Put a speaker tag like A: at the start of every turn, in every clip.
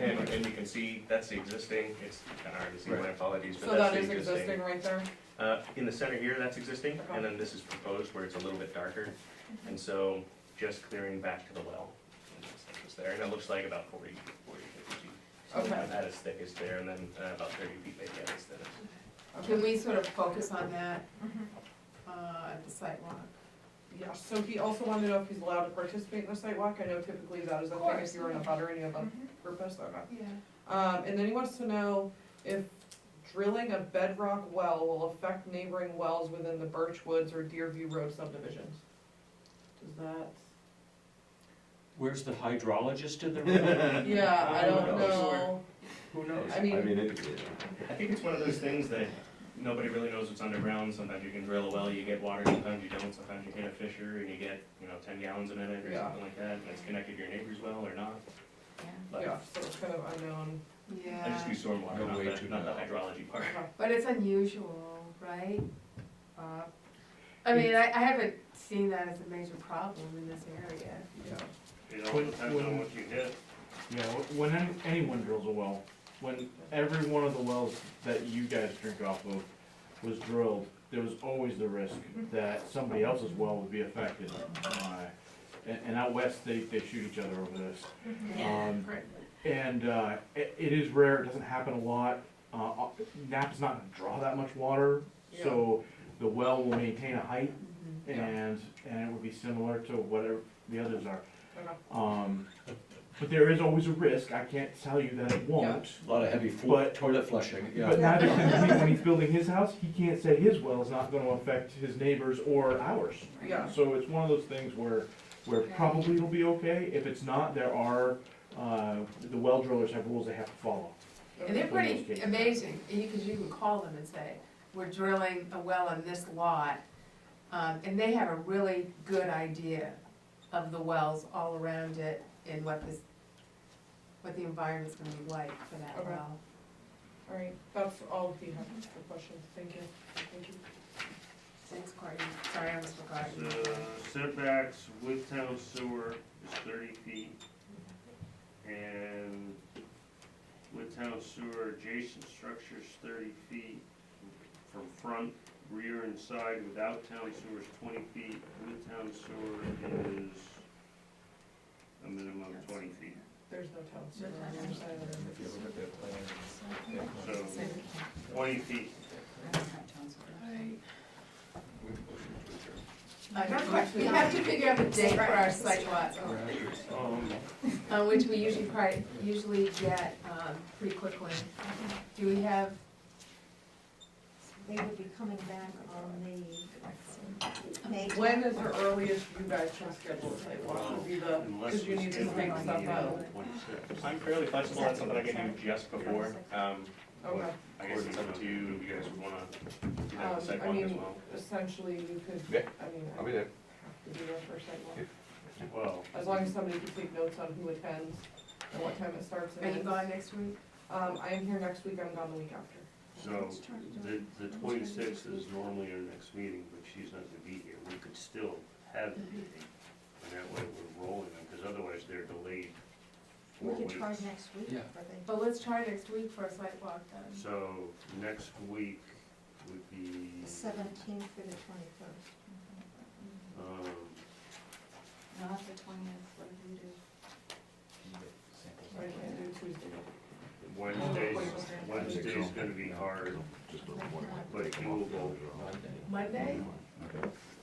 A: and you can see, that's the existing, it's kinda hard to see, my
B: Right.
A: apologies, but
C: So that
A: that's
C: is
A: the existing.
C: existing right there?
A: Uh, in the center here, that's existing,
C: Okay.
A: and then this is proposed where it's a little bit darker, and so just clearing back to the well. and that's like what's there, and it looks like about 40, 40, 50 feet.
C: Okay.
A: About That is thickest there, and then uh, about thirty feet, maybe, yeah, that's thinnest.
D: Can we sort of focus on that
C: Mhm.
D: uh, at the sidewalk?
C: Yeah, so he also wanted to know if he's allowed to participate in the sidewalk, I know typically that is a
D: Of
C: thing if
D: course.
C: you're in a butter, any of Mm-hmm. a
D: Mhm.
C: purpose, okay.
D: Yeah.
C: Um, and then he wants to know if drilling a bedrock well will affect neighboring wells within the Birch Woods or Deerview Road subdivisions. Does that,
E: Where's the hydrologist in the room?
C: yeah, I don't
A: don't
C: know,
A: know. Who knows?
C: I mean-
B: it,
A: I think it's one of those things that nobody really knows what's underground, sometimes you can drill a well, you get water, sometimes you don't, sometimes you hit a fissure and you get, you know, ten gallons a minute or
C: Yeah.
A: something like that, and it's connected to your neighbor's well or not.
C: yeah,
A: But
C: so it's kind of unknown.
A: I just do
D: Yeah,
A: stormwater,
E: No way
A: not the,
E: to
A: not the
E: know.
A: hydrology part.
D: but it's unusual, right? Uh, I mean, I, I haven't seen that as a major problem in this area.
C: Yeah.
A: It
F: all depends on
A: what you hit.
F: Yeah, wh- when an- anyone drills a well, when every one of the wells that you guys drink off of was drilled, there was always the risk that somebody else's well would be affected. by- And, and out west, they, they shoot each other over this. Um, And, uh, it, it is rare, it doesn't happen a lot. Uh, uh, Napa's not gonna draw that much water, so the well will maintain a height
D: Mm-hmm.
C: Yeah.
F: and, and it would be similar to whatever the others are.
C: Okay.
F: Um, but there is always a risk, I can't tell you that it won't.
E: A Lot of heavy fl-
F: But-
E: toilet flushing, yeah.
F: But neither can he, when he's building his house, he can't say his well is not gonna affect his neighbors or ours.
C: Yeah.
F: So it's one of those things where, where probably it'll be okay, if it's not, there are, uh, the well drillers have rules they have to follow.
D: And they're
F: For those
D: pretty
F: cases.
D: amazing, because you can call them and say, we're drilling a well on this lot. Um, and they have a really good idea of the wells all around it and what this, what the environment's gonna be like for that
C: Okay.
D: well.
C: All right, that's all he had for questions, thank you, thank you.
D: Thanks, Courtney, sorry, I almost forgot.
G: The setbacks with town sewer is thirty feet. And with town sewer adjacent structures thirty feet from front, rear and side without town sewer is twenty feet. With town sewer is a minimum of twenty feet.
C: There's no town center on the other side of the river.
B: If you look at their plan,
G: So twenty feet.
D: Uh, not quite. we have to figure out the date for our site walk,
G: Um,
D: uh, which we usually pri, usually get, um, pretty quickly. Do we have,
H: They will be coming back on the May.
C: When is the earliest you guys can schedule a site walk, would be the,
G: unless
C: because you
G: we
C: need to
G: schedule
C: make
G: a
C: stuff
G: meeting
C: out,
G: on twenty-six.
A: I'm fairly flexible, that's something I can do just before, um,
C: okay.
A: I guess it's up to you, if you guys would wanna do that
C: Um,
A: with
C: I
A: sidewalk
C: mean,
A: as well.
C: Essentially, you could,
B: Yeah,
C: I mean, I
B: I'll be there.
C: have to be there for a site walk.
G: Well,
C: As long as somebody can take notes on who attends and what time it starts and
D: are you
C: ends.
D: going next week?
C: Um, I am here next week, I'm gone the week after.
G: So, the, the twenty-sixth is normally our next meeting, but she's not gonna be here, we could still have the
H: Mm-hmm.
G: meeting. And that way we're rolling them, because otherwise they're delayed four
H: We could
G: weeks.
H: try next week
E: Yeah.
H: for the.
D: But let's try next week for a site walk then.
G: So, next week would be,
H: Seventeenth through the twenty-first.
G: um,
H: Not the twentieth, what do you do?
C: I can't do Tuesday.
G: Wednesday's, Wednesday's gonna be hard, but doable.
D: Monday?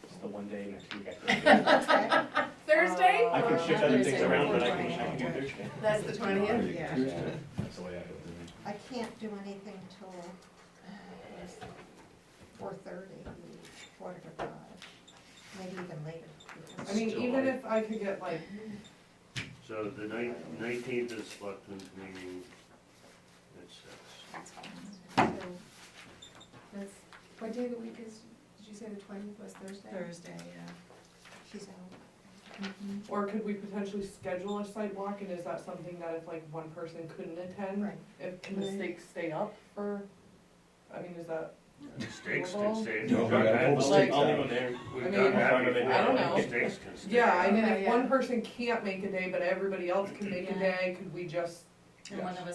A: It's the one day next week.
H: Uh,
D: Thursday?
A: I can shift other things
H: Thursday
A: around,
H: before
A: but I can, I can do
H: Friday.
A: Thursday.
D: That's the twentieth?
H: Yeah.
B: That's the way I have it.
H: I can't do anything till uh, four thirty, quarter to five, maybe even later. because-
C: I mean,
G: Still
C: even
G: hard.
C: if I could get like,
G: So the nineteenth is selectmen's meeting at six.
D: So, That's, what day of the week is, did you say the twentieth was Thursday?
H: Thursday, yeah. She's out. Mm-hmm.
C: or could we potentially schedule a site walk, and is that something that if like one person couldn't attend?
H: Right.
C: If, can the
H: Right.
C: stakes stay up for, I mean, is that,
G: Stakes can
C: Doable?
G: stay.
E: No, we gotta pull the
A: I'll leave
E: stakes out.
A: them there.
G: We've
C: I mean,
G: done that
A: I don't
G: before.
C: know.
G: Stakes can stay.
C: yeah, I mean,
D: Yeah,
C: if
D: yeah.
C: one person can't make a day, but everybody else can make a
I: Yeah.
C: day, could we just
I: And one of us